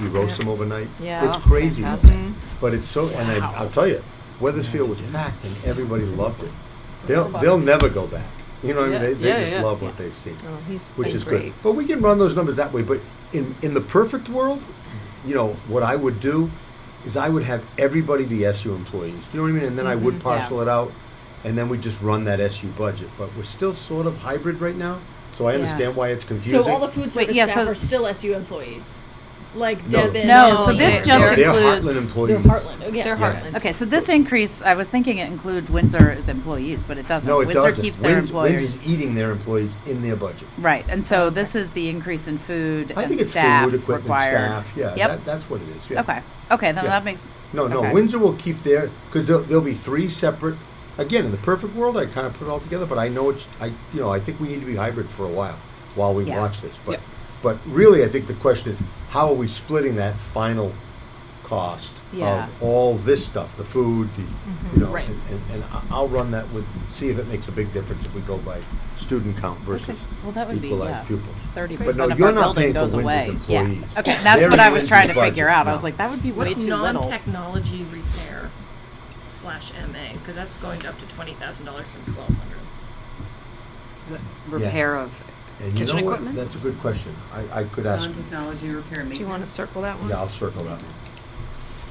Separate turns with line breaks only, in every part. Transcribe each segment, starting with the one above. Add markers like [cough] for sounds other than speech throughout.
You roast them overnight?
Yeah.
It's crazy, Mm-hmm.
Fantastic.
but it's so, and I, I'll tell you, Weathersfield was packed and everybody loved it. They'll,
Lots.
they'll never go back. You know, what I mean?
Yeah,
they,
yeah,
they just
yeah.
love what they've seen,
Oh, he's
which
been
is
great.
great. But we can run those numbers that way, but in, in the perfect world, you know, what I would do is I would have everybody be SU employees. Do you know what I mean? And then I would
Mhm.
parcel it out, and then we just run that SU budget. But we're still sort of hybrid right now, so I
Yeah.
understand why it's confusing.
So all the food
Wait,
service
yeah,
staff
so-
are still SU employees, like
No.
Devin.
No,
and
so this
Ian.
They're-
just
they're
includes-
Heartland
They're
employees.
Heartland, okay.
They're
Yeah.
Heartland.
Okay, so this increase, I was thinking it include Windsor's employees, but it doesn't.
No, it
Windsor
doesn't.
keeps their
Winds- Winds
employees.
is eating their employees in their budget.
Right, and so this is the increase in food
I
and
think it's
staff
food, equipment,
required.
staff, yeah,
Yep.
that, that's what it is, yeah.
Okay, okay, then
Yeah.
that makes,
No, no,
okay.
Windsor will keep their, because there'll, there'll be three separate, again, in the perfect world, I kind of put it all together, but I know it's, I, you know, I think we need to be hybrid for a while, while we
Yeah.
watch this, but,
Yep.
but really, I think the question is, how are we splitting that final cost
Yeah. Mm-hmm.
of all this stuff, the food, the, you know,
Right.
and, and- and I- I'll run that with, see if it makes a big difference if we go by student count versus
well, that would be, yeah,
equalized pupils.
thirty
But no,
percent of
you're
our
not
building
paying for
goes away.
Windsor's
Yeah,
employees.
okay, that's
They're
what I
in
was trying to
Windsor's
figure
budget.
out. I
No.
was like, that would be way
What's
too little.
non-technology repair slash MA? Because that's going up to twenty thousand dollars from twelve hundred.
repair
of
And you know what? That's a good question. I, I could ask,
non-technology repair
Do you want to circle that one?
yeah, I'll circle that.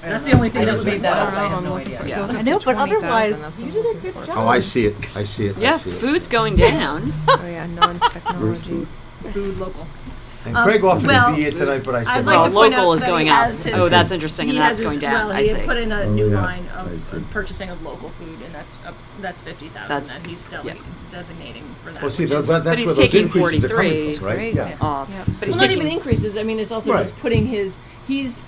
That's the only thing that was
I
like,
don't know,
wow.
I'm looking for- it
Yeah.
goes
I
up
know,
to
but
20,000,
otherwise,
that's
you
what
did a
I'm looking
good
for.
job.
Oh, I see it. I see it.
Yeah,
I see it.
food's going down.
[laughs] Oh, yeah, non-technology.
Food local.
And
Um,
Craig offered to
well,
be here tonight, but I
I'd
said,
like
Well,
to
no.
point out
local is
that he
going up.
has his-
Oh, that's interesting,
He
and
has
that's
his-
going down,
well,
I
he had put
see.
in a
Oh,
new
yeah.
line
I
of
see.
uh, purchasing of local food, and that's, up- that's fifty thousand
That's-
that he's
yeah.
delegating, designating for that.
Well, see,
which
that-
is-
that- that's
he's
where those
taking
increases are coming
43.
from, right?
Great.
Yeah.
Off.
Yep.
But
Well,
he's
not even
taking,
increases, I mean, it's also
Right.
just putting his, he's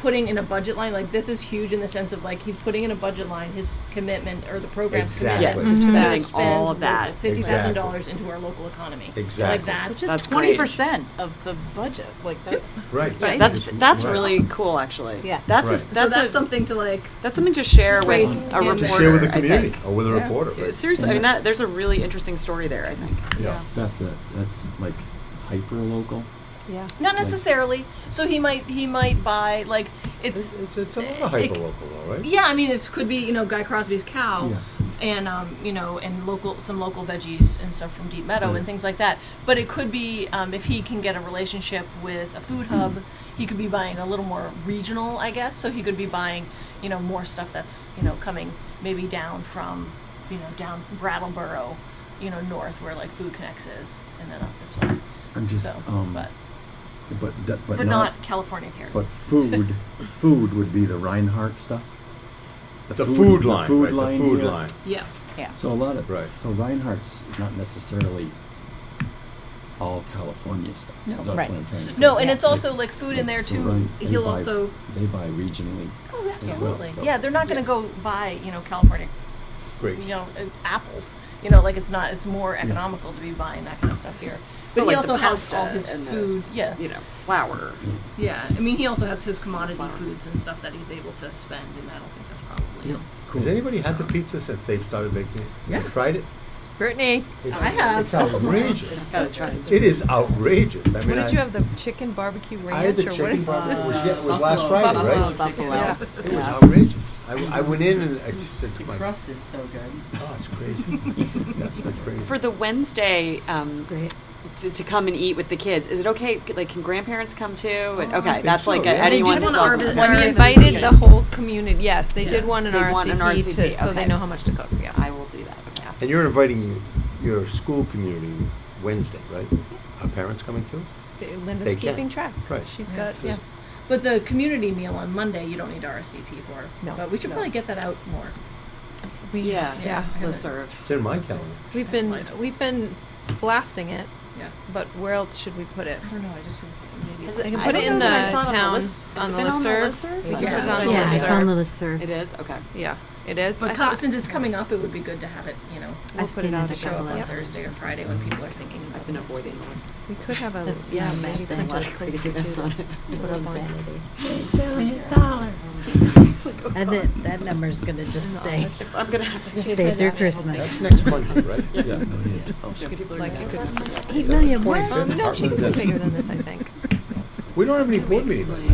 putting in a budget line, like, this is huge in the sense of, like, he's putting in a budget line, his commitment, or the program's
Exactly.
yeah,
commitment.
just
to
spending
spend
all of that.
Fifty thousand dollars
Exactly.
into our local economy.
Exactly.
Like that's
It's
just
That's
just
great.
twenty percent of the budget, like, that's,
Right.
exciting.
That's,
It's-
that's
right.
really cool, actually.
Yeah.
That's, a-
Right.
So
that's,
that's
a-
something to like,
that's something to share with
Raise
a
and-
reporter,
To share with the
I
community
think.
or with a reporter, right?
Seriously, I mean, that, there's a really interesting story there, I think.
Yeah.
That's a, that's like hyper local.
Yeah.
Not necessarily. So he might he might buy like it's
It's, it's a little
it-
hyperlocal though, right?
yeah, I mean, it's, could be, you know, Guy Crosby's
Oh.
cow,
Yeah.
and um, you know and local some local veggies and stuff from Deep Meadow
Mm.
and things like that. But it could be um, if he can get a relationship with a food hub, he could be buying a little more regional, I guess. So he could be buying you know more stuff that's you know coming maybe down from you know down from Brattleboro, you know north where like Food Connects is, and then up this way.
I'm just,
so,
um,
but
But that, but,
but,
not,
not, California carrots.
but
[laughs]
food food would be the Reinhardt stuff.
The food
The
line,
food
right, the
line.
food
here.
line.
yeah.
yeah.
So a lot of
Right.
So Reinhardt's not necessarily all California stuff.
No,
That's what
right.
I'm trying to say.
no, and
Yeah.
it's also like food in there
So
too.
Rein- they
He'll
buy-
also-
they buy regionally.
Oh, absolutely.
so-
Yeah, they're not going to go buy, you know, California,
Great.
you know, uh, apples. You know, like it's not. It's more economical to be buying that kind of stuff here. But,
But
he
like the
also has
pasta
all his
and the-
food. yeah.
You know, flour.
Yeah, I mean, he also has his commodity
Flour.
foods and stuff that he's able to spend, and I don't think that's probably.
Yeah.
Has anybody had the pizza since they've started making it? Yeah. Tried it?
Brittany,
It's-
I have.
It's outrageous.
Gotta try it.
It is outrageous. I
what
mean,
did you
I,
have, the chicken barbecue ranch?
I had the
or what-
chicken barbecue, it was, yeah, it was
Buffalo-
last Friday,
buffalo
right?
chicken.
Yeah.
Yeah.
It was
Yeah.
outrageous. I, I went in and I just said to
The
my, oh,
crust is so good.
it's crazy. [laughs] That's crazy.
For the Wednesday, um,
Great.
to, to come and eat with the kids. Is it okay? c- Like, can grandparents come too? And, okay,
think
that's
so,
like
yeah.
a,
They did
anyone's
want an
welcome.
RV-
Well,
Yeah.
he
Yeah.
invited the whole community, yes, they did
Yeah.
want an
They want an
RSVP
RSVP,
to, so they
okay.
know how much to cook, yeah.
I will do that. Okay.
And you're inviting your school community Wednesday, right? Are parents coming too?
Th- Linda's
They can.
keeping track.
Right.
She's got, yeah.
But the community meal on Monday, you don't need to RSVP for.
No.
But we should
No.
probably get that out more.
We-
Yeah,
Yeah.
We'll serve.
It's in my calendar.
We've been, we've been blasting it,
Yeah.
but where else should we put it?
I
Mm-hmm.
don't know. I just feel like maybe.
Has
it's-
I can
I
put
don't
it in
know that I
the
saw it on the
town,
list. Has
on
it
the
been on the
listserv.
listserv?
We can put
Yeah.
it on the
Yeah,
listserv.
it's on
the listserv.
It is okay.
Yeah, it is. I
But
thought-
com- since it's coming up, it would be good to have it. You know,
We'll
I've
put it
seen
out
it a
show up
again.
couple
on
of
Yep.
Thursday or Friday when people are thinking.
I've been avoiding the list.
We could have a.
It's
Yeah,
not much
maybe
then,
a lot
what
of craziness on it.
What on
[laughs]
Saturday?
It's like, oh,
And
God.
that, that number's gonna just stay,
Oh, I'm gonna have to.
stay through
That's
Christmas.
next Monday, right? Yeah.
Oh,
Like, you could,
Eight million, what?
um, no, she could be bigger than this, I think.
We don't have any board meetings.